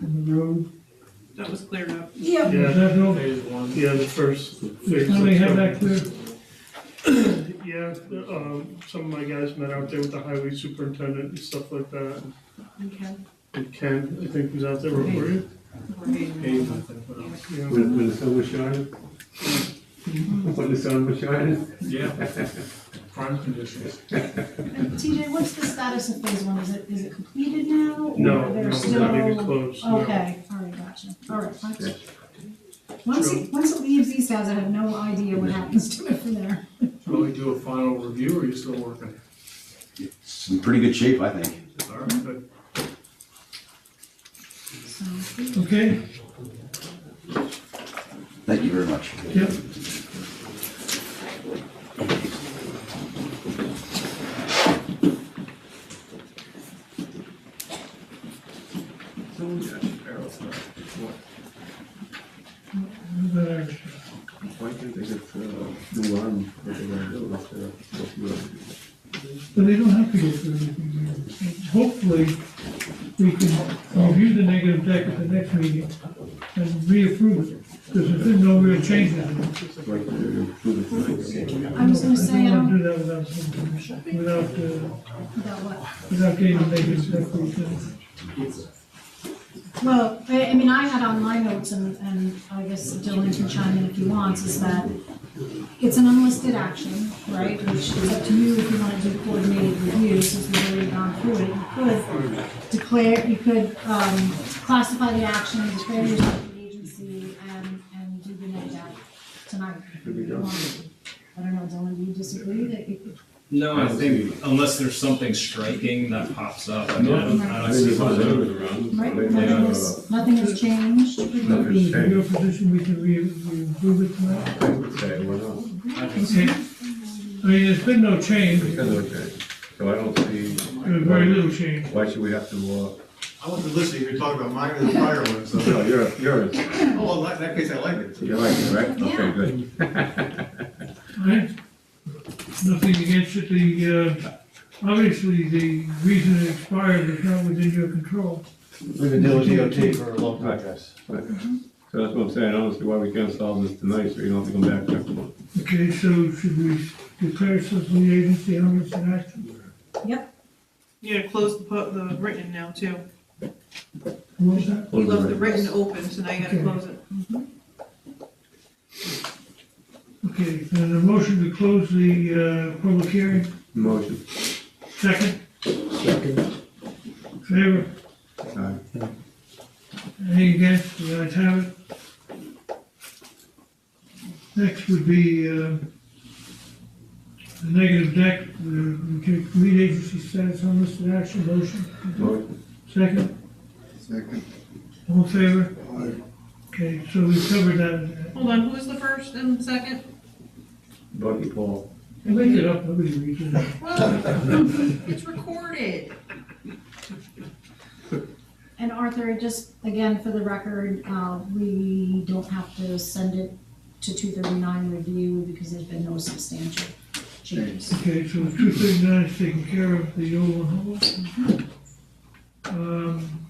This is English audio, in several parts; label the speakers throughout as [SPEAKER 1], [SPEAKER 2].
[SPEAKER 1] in the road.
[SPEAKER 2] That was cleared up.
[SPEAKER 1] Yeah.
[SPEAKER 3] Is
[SPEAKER 1] Yeah,
[SPEAKER 3] that no,
[SPEAKER 4] one.
[SPEAKER 1] the first phase.
[SPEAKER 3] somebody have that clear?
[SPEAKER 1] Yeah, the, um, some of my guys met out there with the highway superintendent and stuff like that.
[SPEAKER 2] Okay.
[SPEAKER 1] And Ken, I think, was out there, were you?
[SPEAKER 2] Right.
[SPEAKER 1] Yeah.
[SPEAKER 5] When, when the sun was shining? When the sun was shining?
[SPEAKER 4] Yeah. Prime conditions.
[SPEAKER 6] TJ, what's the status of phase one? Is it, is it completed now? or
[SPEAKER 1] No, no,
[SPEAKER 6] There's
[SPEAKER 1] it's not even
[SPEAKER 6] still,
[SPEAKER 1] close. no.
[SPEAKER 6] okay, all right, gotcha, all right. fine. Once it, once it leaves these guys, I have no idea what happens to it from there.
[SPEAKER 4] Will we do a final review or are you still working?
[SPEAKER 7] It's in pretty good shape, I think.
[SPEAKER 4] All right, good.
[SPEAKER 6] So,
[SPEAKER 3] Okay,
[SPEAKER 7] Thank you very much.
[SPEAKER 3] yep. Better.
[SPEAKER 8] Why can't they just, uh, do one, what they gonna do, like, uh, what you want to do?
[SPEAKER 3] But they don't have to go through anything. Hopefully, we can review the negative deck at the next meeting and reapprove it, because there's been no real changes. in it.
[SPEAKER 8] Like, uh, do the thing, okay?
[SPEAKER 6] I was gonna say,
[SPEAKER 3] I don't
[SPEAKER 6] um,
[SPEAKER 3] wanna do that without, some- without, uh,
[SPEAKER 6] about what?
[SPEAKER 3] without getting the negative deck. revision.
[SPEAKER 6] Well, I, I mean, I had on my notes, and, and I guess Dylan can chime in if he wants, is that it's an unlisted action, right? Which is up to you if you wanna do coordinated reviews, since we've already gone through it. You could declare, you could, um, classify the action, declare yourself an agency, and, and do the next act tonight. if you want. I don't know, Dylan, do you disagree that you?
[SPEAKER 9] No, I think unless there's something striking that pops up, I mean, I don't, I don't
[SPEAKER 8] I think
[SPEAKER 9] see
[SPEAKER 8] it's
[SPEAKER 9] why.
[SPEAKER 8] fine.
[SPEAKER 6] Right, nothing has, nothing has changed.
[SPEAKER 3] Is it your position we can re- reapprove it tonight?
[SPEAKER 8] I would say, why not?
[SPEAKER 3] Okay. I mean, there's been no change,
[SPEAKER 8] It's kind of okay, so I don't see,
[SPEAKER 3] there's very little change.
[SPEAKER 8] why should we have to, uh,
[SPEAKER 10] I wasn't listening, you were talking about mine and the prior one, so,
[SPEAKER 8] no, you're, you're,
[SPEAKER 10] oh, well, in that case, I like it.
[SPEAKER 8] you like it, right? Okay,
[SPEAKER 6] Yeah.
[SPEAKER 8] good.
[SPEAKER 3] Right. Nothing against it, the, uh, obviously, the reason it expired is not within your control.
[SPEAKER 5] We've been dealing with DOT for a long time, guys.
[SPEAKER 8] So that's what I'm saying, I don't see why we can't solve this tonight, so you don't have to come back next month.
[SPEAKER 3] Okay, so should we declare ourselves the agency unlisted action?
[SPEAKER 2] Yeah, close the, pu- the written now too.
[SPEAKER 3] What was that?
[SPEAKER 2] You left the written open, so now you gotta close it.
[SPEAKER 3] Okay, and a motion to close the, uh, public hearing,
[SPEAKER 8] Motion,
[SPEAKER 3] second? Second. Favor,
[SPEAKER 8] aye.
[SPEAKER 3] any against, the ayes have it. Next would be, uh, the negative deck, the, the lead agency status unlisted action motion.
[SPEAKER 8] motion,
[SPEAKER 3] Second,
[SPEAKER 10] Second.
[SPEAKER 3] all in favor? Okay, so we've covered that.
[SPEAKER 2] Hold on, who was the first and second?
[SPEAKER 8] Bucky Paul.
[SPEAKER 3] I made it up, nobody reads it.
[SPEAKER 2] Well, it's recorded.
[SPEAKER 6] And Arthur, just again, for the record, uh, we don't have to send it to two thirty-nine review because there's been no substantial changes.
[SPEAKER 3] Okay, so two thirty-nine is taken care of, the old one. Um,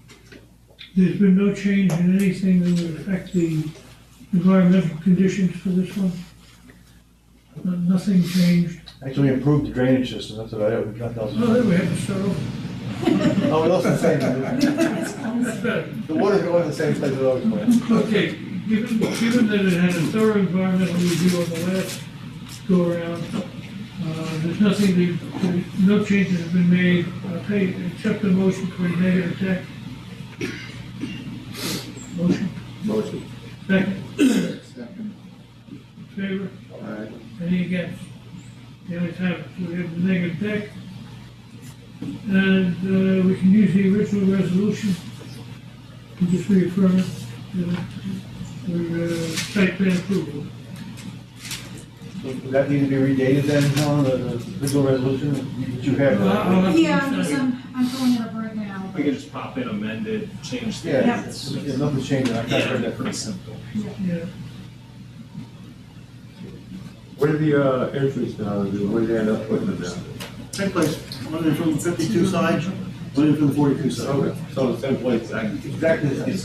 [SPEAKER 3] There's been no change in anything that would affect the environmental conditions for this one? No- Nothing changed?
[SPEAKER 5] Actually improved the drainage system, that's what I, nothing else.
[SPEAKER 3] Oh, there we have, it, so,
[SPEAKER 5] Oh, what else is the same?
[SPEAKER 3] that's better.
[SPEAKER 5] The water's going to the same place it always went.
[SPEAKER 3] Okay, given, given that it had a thorough environmental review on the last go-around, uh, there's nothing, that- that- no changes have been made, I'll take, accept the motion for a negative deck. Motion,
[SPEAKER 8] Motion,
[SPEAKER 3] second. Favor,
[SPEAKER 8] aye.
[SPEAKER 3] any against? The ayes have it, so we have the negative deck. And, uh, we can use the original resolution, to just reaffirm it, uh, for, uh, site plan approval.
[SPEAKER 5] Does that need to be redated then, Helen, the, the legal resolution that you have?
[SPEAKER 3] I'll- I'll have to
[SPEAKER 6] Yeah,
[SPEAKER 3] decide.
[SPEAKER 6] because I'm, I'm pulling it up right now.
[SPEAKER 9] We can just pop in amended, change the.
[SPEAKER 5] Yeah, it's- it's nothing's changing, I've heard
[SPEAKER 9] Yeah,
[SPEAKER 5] that
[SPEAKER 9] pretty simple.
[SPEAKER 3] Yeah,
[SPEAKER 8] What are the, uh, entries now, what do they end up putting them down?
[SPEAKER 10] Same place, one in from the fifty-two side, one in from the forty-two side.
[SPEAKER 8] So the same place, I
[SPEAKER 10] Exactly, it's